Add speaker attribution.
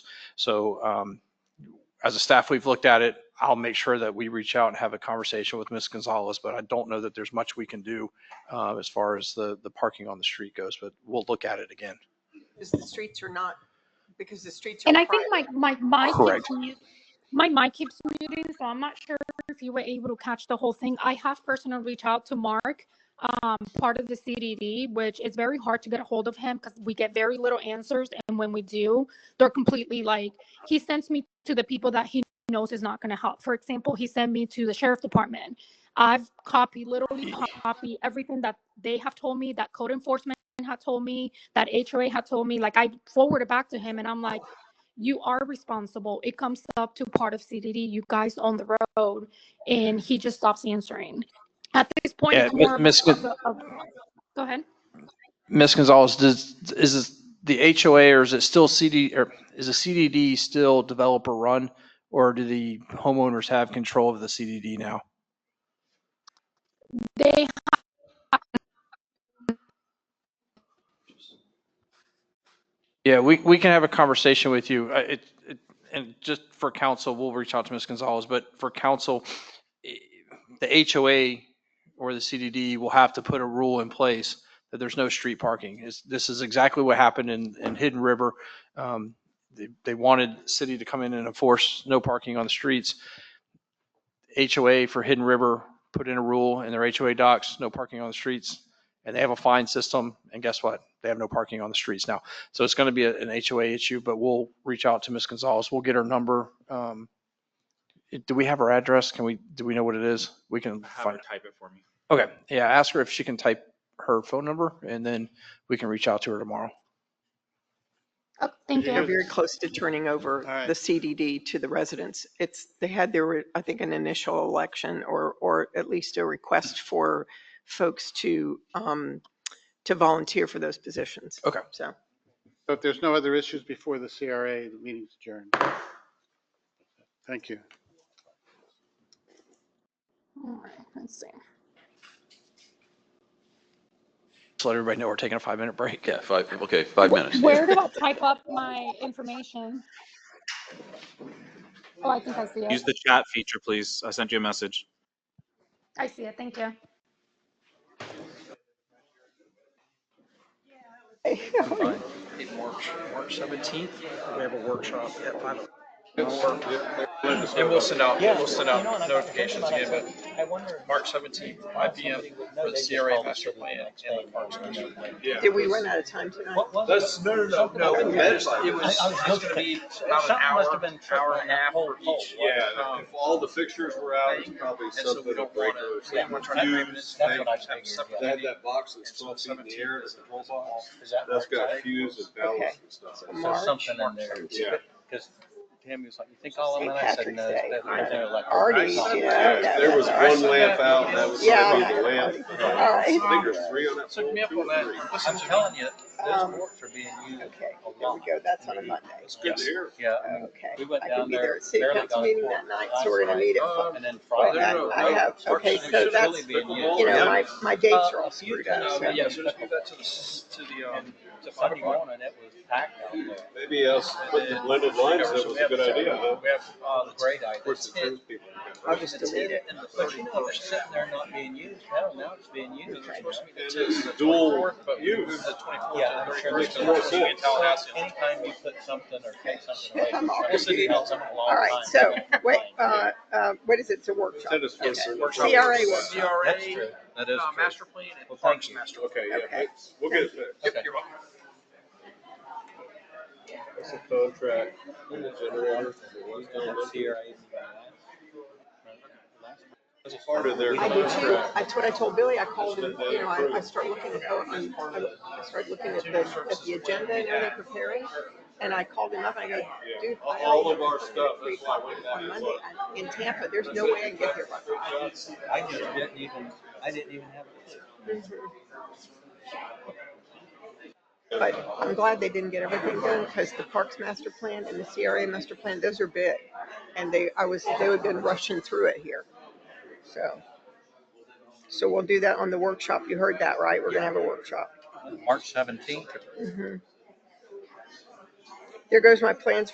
Speaker 1: So um, as a staff, we've looked at it. I'll make sure that we reach out and have a conversation with Ms. Gonzalez, but I don't know that there's much we can do uh, as far as the, the parking on the street goes, but we'll look at it again.
Speaker 2: Because the streets are not, because the streets are.
Speaker 3: And I think
Speaker 2: private.
Speaker 3: my, my, my,
Speaker 1: Correct.
Speaker 3: keeps mu- my mic keeps muting, so I'm not sure if you were able to catch the whole thing. I have personally reached out to Mark, um, part of the CDD, which is very hard to get a hold of him because we get very little answers. And when we do, they're completely like, he sends me to the people that he knows is not going to help. For example, he sent me to the sheriff department. I've copied, literally copied everything that they have told me, that code enforcement had told me, that HOA had told me. Like I forwarded back to him and I'm like, you are responsible. It comes up to part of CDD. You guys on the road, and he just stops answering. At this point,
Speaker 1: Yeah,
Speaker 3: it's
Speaker 1: Mi-
Speaker 3: more of
Speaker 1: Miss-
Speaker 3: a- of- go ahead.
Speaker 1: Ms. Gonzalez, does, is this the HOA or is it still CD, or is the CDD still developer run? Or do the homeowners have control of the CDD now?
Speaker 3: They
Speaker 1: Yeah, we, we can have a conversation with you. Uh, It, it, and just for council, we'll reach out to Ms. Gonzalez, but for council, eh, the HOA or the CDD will have to put a rule in place that there's no street parking. Is, this is exactly what happened in, in Hidden River. Um, They, they wanted city to come in and enforce no parking on the streets. HOA for Hidden River put in a rule in their HOA docs, no parking on the streets. And they have a fine system, and guess what? They have no parking on the streets now. So it's going to be a- an HOA issue, but we'll reach out to Ms. Gonzalez. We'll get her number. Um, Do we have her address? Can we, do we know what it is? We can
Speaker 4: Have her
Speaker 1: find.
Speaker 4: type it for me.
Speaker 1: Okay, yeah, ask her if she can type her phone number and then we can reach out to her tomorrow.
Speaker 3: oh, thank
Speaker 2: They're
Speaker 3: you.
Speaker 2: very close to turning over
Speaker 4: All right.
Speaker 2: the CDD to the residents. It's, they had their, I think, an initial election or, or at least a request for folks to, um, to volunteer for those positions.
Speaker 1: Okay.
Speaker 2: So.
Speaker 5: So if there's no other issues before the CRA, the meeting's adjourned. Thank you.
Speaker 3: All right, let's see.
Speaker 1: Just let everybody know we're taking a five minute break.
Speaker 6: Yeah, five, okay, five minutes.
Speaker 3: Where do I type up my information? Oh, I think I see
Speaker 4: Use
Speaker 3: it.
Speaker 4: the chat feature, please. I sent you a message.
Speaker 3: I see it. Thank you.
Speaker 1: March, March 17th, we have a workshop at five. And we'll send out, we'll send out notifications again, but March 17th, five PM for the CRA master plan and the parks master plan.
Speaker 2: Did we run out of time tonight?
Speaker 7: That's, no, no, no,
Speaker 1: It was, it was
Speaker 7: I- I was
Speaker 1: it's gonna be about an
Speaker 7: Something
Speaker 1: hour,
Speaker 7: must have been
Speaker 1: hour and a half for each.
Speaker 7: Yeah,
Speaker 1: Um,
Speaker 7: if all the fixtures were out, it's probably
Speaker 1: And so we
Speaker 7: something.
Speaker 1: don't
Speaker 7: a breaker
Speaker 1: wanna-
Speaker 7: or
Speaker 1: we don't wanna try to
Speaker 7: something.
Speaker 1: limit it.
Speaker 7: Fuse,
Speaker 1: That's
Speaker 7: they-
Speaker 1: what I figured,
Speaker 7: They had
Speaker 1: yeah.
Speaker 7: that box that's
Speaker 1: And so
Speaker 7: twelve feet in the
Speaker 1: seventeenth
Speaker 7: air, the
Speaker 1: is the
Speaker 7: control box,
Speaker 8: Is that
Speaker 7: that's got
Speaker 8: right?
Speaker 7: fuse and ballast and stuff.
Speaker 2: Okay.
Speaker 8: There's something in there.
Speaker 7: Yeah.
Speaker 8: Because Tammy was like, you think all of them? And I said,
Speaker 2: St.
Speaker 8: no,
Speaker 2: Patrick's Day.
Speaker 8: they're- they're electric.
Speaker 2: Artie's,
Speaker 8: I said,
Speaker 2: yeah.
Speaker 7: Yeah, There was
Speaker 2: yeah.
Speaker 7: one lamp out, and that was
Speaker 2: Yeah,
Speaker 7: gonna be the
Speaker 2: I know.
Speaker 7: lamp. but
Speaker 2: All
Speaker 7: I
Speaker 2: right,
Speaker 7: think there's three on that.
Speaker 8: Took
Speaker 7: pole,
Speaker 8: me up
Speaker 7: two
Speaker 8: on
Speaker 7: or
Speaker 8: that.
Speaker 7: three.
Speaker 8: I'm telling you,
Speaker 2: Um,
Speaker 8: those forks are being used
Speaker 2: okay,
Speaker 8: a
Speaker 2: there we
Speaker 8: lot.
Speaker 2: go. That's on a Monday.
Speaker 7: It's good to hear.
Speaker 8: Yeah. I mean,
Speaker 2: Okay.
Speaker 8: We went
Speaker 2: I
Speaker 8: down
Speaker 2: can be there
Speaker 8: there.
Speaker 2: at city
Speaker 8: barely
Speaker 2: council
Speaker 8: got a
Speaker 2: meeting that
Speaker 8: quarter
Speaker 2: night,
Speaker 8: last
Speaker 2: so we're gonna
Speaker 8: night,
Speaker 2: meet at five.
Speaker 8: And then Friday. uh,
Speaker 2: I- I have-
Speaker 8: those forks
Speaker 2: okay,
Speaker 8: should
Speaker 2: so
Speaker 8: really
Speaker 2: that's-
Speaker 8: be in use.
Speaker 2: You know,
Speaker 8: Yeah.
Speaker 2: my, my dates are
Speaker 8: Uh,
Speaker 2: all
Speaker 8: if
Speaker 2: screwed
Speaker 8: you-
Speaker 2: up,
Speaker 8: uh,
Speaker 2: so.
Speaker 8: Yeah, so just move that to the, to the, um, to Sunday morning, it was packed out there.
Speaker 7: Maybe us, put the blended lines, that was a good idea, huh?
Speaker 8: We have, uh, the great idea.
Speaker 7: Of course, the first people.
Speaker 2: I'll just delete it.
Speaker 8: But you know, it's sitting there not being used, hell, now it's being used. It's supposed to be the
Speaker 7: And
Speaker 8: 10th,
Speaker 7: it's
Speaker 8: the
Speaker 7: dual
Speaker 8: 24th, but we
Speaker 7: use.
Speaker 8: moved the 24th to the 31st,
Speaker 7: makes
Speaker 8: so
Speaker 7: more
Speaker 8: it's gonna be in
Speaker 7: sense.
Speaker 8: Tallahassee. Anytime you put something or take something away,
Speaker 2: I'm
Speaker 8: from
Speaker 2: all
Speaker 8: somebody,
Speaker 2: confused.
Speaker 8: it helps them a long
Speaker 2: All right,
Speaker 8: time.
Speaker 2: so,
Speaker 8: That's
Speaker 2: wait,
Speaker 8: fine.
Speaker 2: uh, uh, what is it? It's a workshop.
Speaker 7: Send us
Speaker 2: Okay.
Speaker 7: first.
Speaker 2: CRA workshop.
Speaker 8: That's true, that is
Speaker 1: uh,
Speaker 8: true.
Speaker 1: master plan
Speaker 8: Well,
Speaker 1: and
Speaker 8: thank
Speaker 1: parks
Speaker 8: you.
Speaker 1: master.
Speaker 7: Okay, yeah,
Speaker 2: Okay.
Speaker 7: but we'll get it fixed.
Speaker 8: Okay.
Speaker 1: You're welcome.
Speaker 7: It's a contract, and the generator, and the one's down
Speaker 8: That's
Speaker 7: there.
Speaker 8: here, I-
Speaker 7: It's a part of their
Speaker 2: I do too.
Speaker 7: contract.
Speaker 2: That's what I told Billy. I called him,
Speaker 7: uh,
Speaker 2: you know, I, I start looking at, um, I I start looking at the, at the agenda and everything preparing. And I called him up and I go, dude. I
Speaker 7: Yeah. All of
Speaker 2: don't
Speaker 7: our
Speaker 2: have
Speaker 7: stuff,
Speaker 2: free
Speaker 7: that's why we
Speaker 2: time
Speaker 7: have
Speaker 2: On
Speaker 7: it.
Speaker 2: Monday, I'm in Tampa, there's no way I can get here. by Friday."
Speaker 8: I just didn't even, I didn't even have. a clue.
Speaker 2: But I'm glad they didn't get everything done because the Parks Master Plan and the CRA Master Plan, those are big. And they, I was, they would have been rushing through it here. So. So we'll do that on the workshop. You heard that, right? We're gonna have a workshop.
Speaker 8: March seventeenth.
Speaker 2: Mhm. There goes my plans